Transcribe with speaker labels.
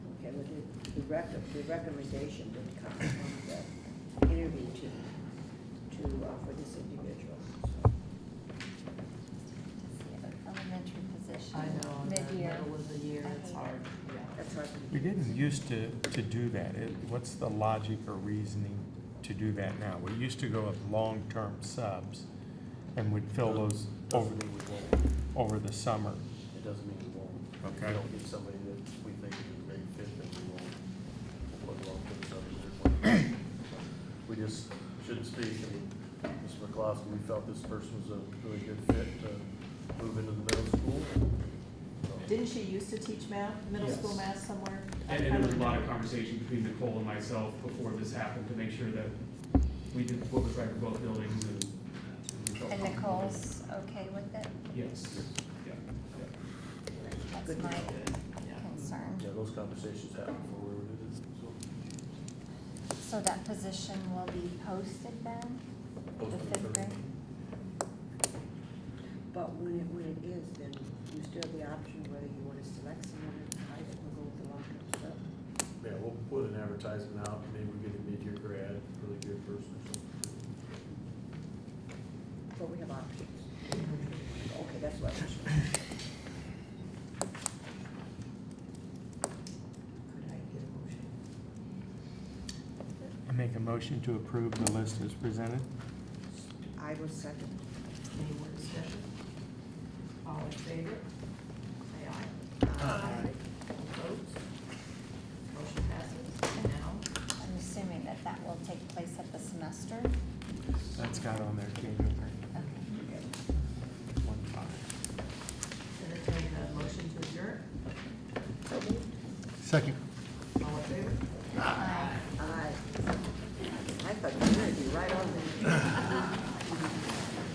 Speaker 1: rec, the recommendation would come from the interview team to, uh, for this individual, so.
Speaker 2: Elementary position.
Speaker 3: I know, in the
Speaker 2: Mid-year.
Speaker 3: middle of the year,
Speaker 2: I
Speaker 3: it's
Speaker 2: hate
Speaker 3: hard, yeah.
Speaker 1: That's hard to.
Speaker 4: We didn't used to, to do that. It- What's the logic or reasoning to do that now? We used to go with long-term subs and would fill
Speaker 5: Oh.
Speaker 4: those over,
Speaker 5: Doesn't mean we won't,
Speaker 4: over the summer.
Speaker 5: it doesn't mean we won't. If
Speaker 4: Okay.
Speaker 5: we don't get somebody that we think is a great fit, then we won't. We'll put a lot of others in there. We just shouldn't speak, and Mr. McCloskey, we felt this person was a really good fit to move into the middle school. So,
Speaker 3: Didn't she used to teach math, middle
Speaker 5: Yes.
Speaker 3: school math somewhere? I
Speaker 6: And, and there was a
Speaker 3: kinda-
Speaker 6: lot of conversation between Nicole and myself before this happened to make sure that we did what was right for both buildings and. we felt
Speaker 2: And
Speaker 6: comfortable with it.
Speaker 2: Nicole's okay with it?
Speaker 6: Yes, yeah, yeah.
Speaker 2: That's
Speaker 1: Good.
Speaker 2: my
Speaker 3: Yeah.
Speaker 2: concern.
Speaker 5: Yeah, those conversations happen before we were doing this, so.
Speaker 2: So that position will be posted then, the fifth grade?
Speaker 1: But when it, when it is, then you still have the option whether you wanna select someone and hide it and go with the long-term sub.
Speaker 5: Yeah, we'll put an advertisement out, maybe we get a mid-year grad, really good person or something.
Speaker 1: But we have options. Okay, that's what I was trying to
Speaker 3: Could I get a motion?
Speaker 4: I make a motion to approve the list as presented.
Speaker 1: I was second.
Speaker 3: Any more discussion? All in favor? Say aye. Opposed? Motion passes. And now,
Speaker 2: I'm assuming that that will take place at the semester?
Speaker 4: That's got on there, January
Speaker 2: Okay.
Speaker 4: one five.
Speaker 3: entertain a motion to adjourn.
Speaker 4: Second.
Speaker 3: All in favor?
Speaker 1: I, I thought you were gonna be right on the